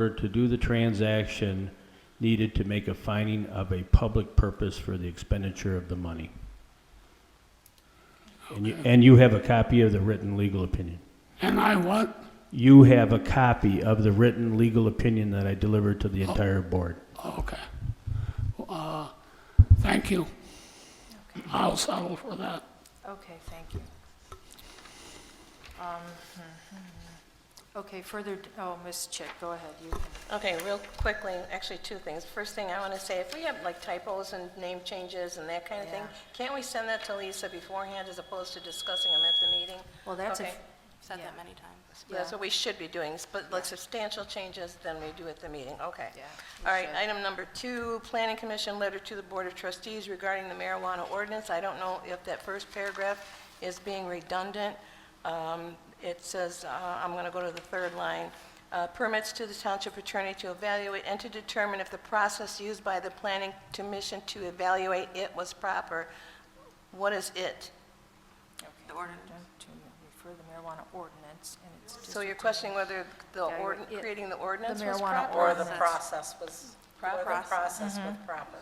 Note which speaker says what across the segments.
Speaker 1: order to do the transaction needed to make a finding of a public purpose for the expenditure of the money. And you, and you have a copy of the written legal opinion.
Speaker 2: And I what?
Speaker 1: You have a copy of the written legal opinion that I delivered to the entire board.
Speaker 2: Oh, Okay. Uh, Thank you. I'll settle for that.
Speaker 3: Okay, thank you. Um, hmm. Okay, further, d- oh, Ms. Chick, go ahead, you can.
Speaker 4: Okay, real quickly, actually, two things. First thing I want to say, if we have like typos and name changes and that kind of thing,
Speaker 3: Yeah.
Speaker 4: can't we send that to Lisa beforehand as opposed to discussing them at the meeting?
Speaker 3: Well, that's a,
Speaker 4: Okay.
Speaker 5: Said
Speaker 3: Yeah.
Speaker 5: that many times.
Speaker 4: That's
Speaker 3: yeah.
Speaker 4: what we should be doing, s- but like substantial changes, then we do at the meeting, okay.
Speaker 3: Yeah, we
Speaker 4: All right,
Speaker 3: should.
Speaker 4: item number two, Planning Commission letter to the Board of Trustees regarding the marijuana ordinance. I don't know if that first paragraph is being redundant. Um, It says, uh, I'm going to go to the third line, uh, permits to the township attorney to evaluate and to determine if the process used by the planning commission to evaluate it was proper. What is it?
Speaker 5: The ordinance.
Speaker 3: to refer the marijuana ordinance, and it's just.
Speaker 4: So you're questioning whether the, ord-
Speaker 3: Yeah, it-
Speaker 4: creating the ordinance
Speaker 3: the
Speaker 4: was
Speaker 3: marijuana
Speaker 4: proper?
Speaker 6: Or the
Speaker 3: Process.
Speaker 6: process was, or the
Speaker 5: Process.
Speaker 6: process Mm-hmm. was proper.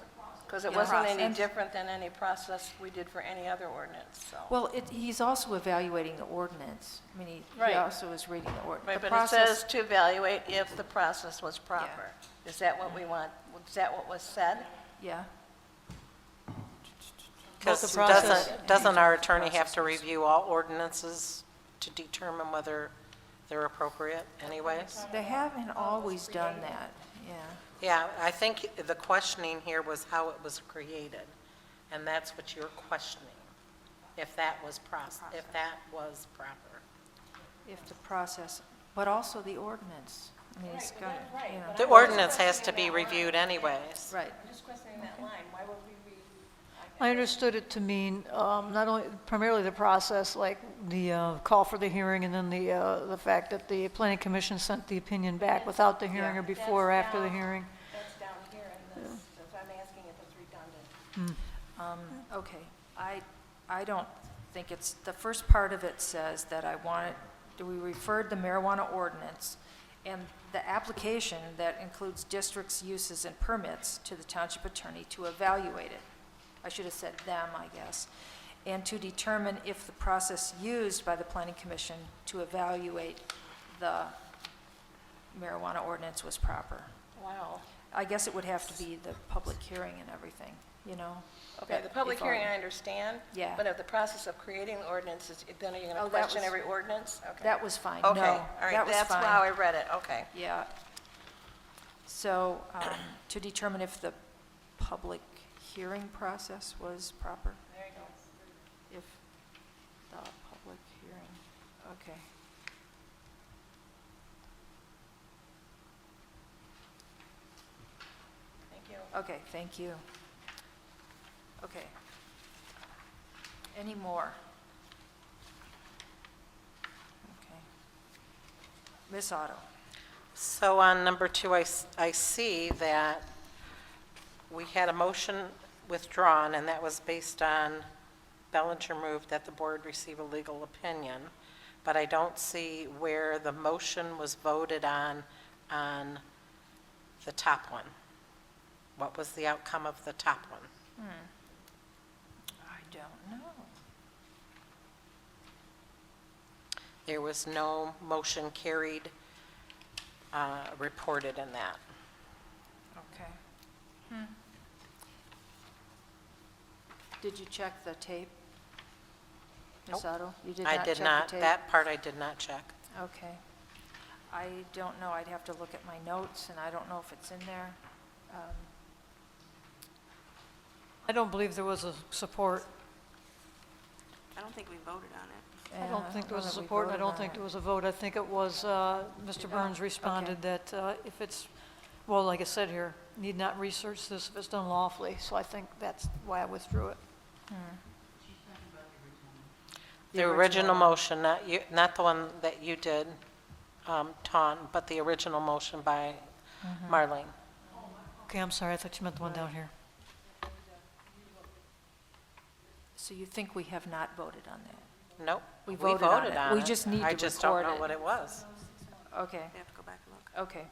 Speaker 4: Because it
Speaker 5: Yeah.
Speaker 4: wasn't any
Speaker 5: Process.
Speaker 4: different than any process we did for any other ordinance, so.
Speaker 3: Well, it, he's also evaluating the ordinance. I mean, he, he
Speaker 4: Right.
Speaker 3: also is reading the ordinance.
Speaker 4: Right, but it says to evaluate if the process was proper. Is that what we want? Is that what was said?
Speaker 3: Yeah,
Speaker 6: Because doesn't, doesn't our attorney have to review all ordinances to determine whether they're appropriate anyways?
Speaker 3: they haven't always done that, yeah.
Speaker 6: Yeah, I think the questioning here was how it was created, and that's what you're questioning, if that was process, if that was proper.
Speaker 3: If the process, but also the ordinance. I mean, it's got, you know,
Speaker 6: The ordinance has to be reviewed anyways.
Speaker 3: right.
Speaker 4: Just questioning that line, why would we read?
Speaker 7: I understood it to mean um, not only, primarily the process, like the uh, call for the hearing and then the, uh, the fact that the planning commission sent the opinion back without the hearing or before or after the hearing.
Speaker 4: That's down here in this, that's why I'm asking if it's redundant.
Speaker 3: Um, Okay, I, I don't think it's, the first part of it says that I want it, do we referred the marijuana ordinance and the application that includes districts, uses, and permits to the township attorney to evaluate it. I should have said them, I guess, and to determine if the process used by the planning commission to evaluate the marijuana ordinance was proper.
Speaker 4: Wow.
Speaker 3: I guess it would have to be the public hearing and everything, you know?
Speaker 4: Okay,
Speaker 3: that
Speaker 4: the public
Speaker 3: if um, all-
Speaker 4: hearing, I understand.
Speaker 3: Yeah.
Speaker 4: But of the process of creating the ordinances, then are you going
Speaker 3: Oh,
Speaker 4: to
Speaker 3: that
Speaker 4: question
Speaker 3: was-
Speaker 4: every ordinance? Okay.
Speaker 3: That was fine, no.
Speaker 4: Okay, all
Speaker 3: that
Speaker 4: right,
Speaker 3: was
Speaker 4: that's
Speaker 3: fine.
Speaker 4: how I read it, okay.
Speaker 3: Yeah. So, um, to determine if the public hearing process was proper? There you go. If the public hearing, okay.
Speaker 4: Thank you.
Speaker 3: Okay, thank you. Okay. Any more? Okay. Miss Otto?
Speaker 6: So on number two, I, s- I see that we had a motion withdrawn, and that was based on Bellinger moved that the board receive a legal opinion, but I don't see where the motion was voted on, on the top one. What was the outcome of the top one?
Speaker 3: I don't know.
Speaker 6: There was no motion carried, uh, reported in that.
Speaker 3: Okay. Hmm. Did you check the tape? Ms. Otto? You did not
Speaker 6: I
Speaker 3: check
Speaker 6: did
Speaker 3: the
Speaker 6: not,
Speaker 3: tape?
Speaker 6: that part I did not check.
Speaker 3: Okay. I don't know, I'd have to look at my notes, and I don't know if it's in there. Um,
Speaker 7: I don't believe there was a support.
Speaker 5: I don't think we voted on it.
Speaker 7: I
Speaker 3: and
Speaker 7: don't think there was a
Speaker 3: Uh, whether we
Speaker 7: support, and I
Speaker 3: voted
Speaker 7: don't
Speaker 3: on
Speaker 7: think
Speaker 3: it.
Speaker 7: there was a vote. I think it was, uh, Mr. Burns responded that uh, if it's, well, like I said here, need not research this if it's done lawfully, so I think that's why I withdrew it.
Speaker 6: The original motion, not you, not the one that you did, um, Ton, but the original motion by
Speaker 3: Mm-hmm.
Speaker 6: Marlene.
Speaker 7: Okay, I'm sorry, I thought you meant the one down here.
Speaker 3: So you think we have not voted on that?
Speaker 6: Nope.
Speaker 3: We voted on it. We just need to
Speaker 6: I just don't
Speaker 3: record
Speaker 6: know
Speaker 3: it.
Speaker 6: what it was.
Speaker 3: Okay,
Speaker 5: We have to go back and look.
Speaker 3: okay.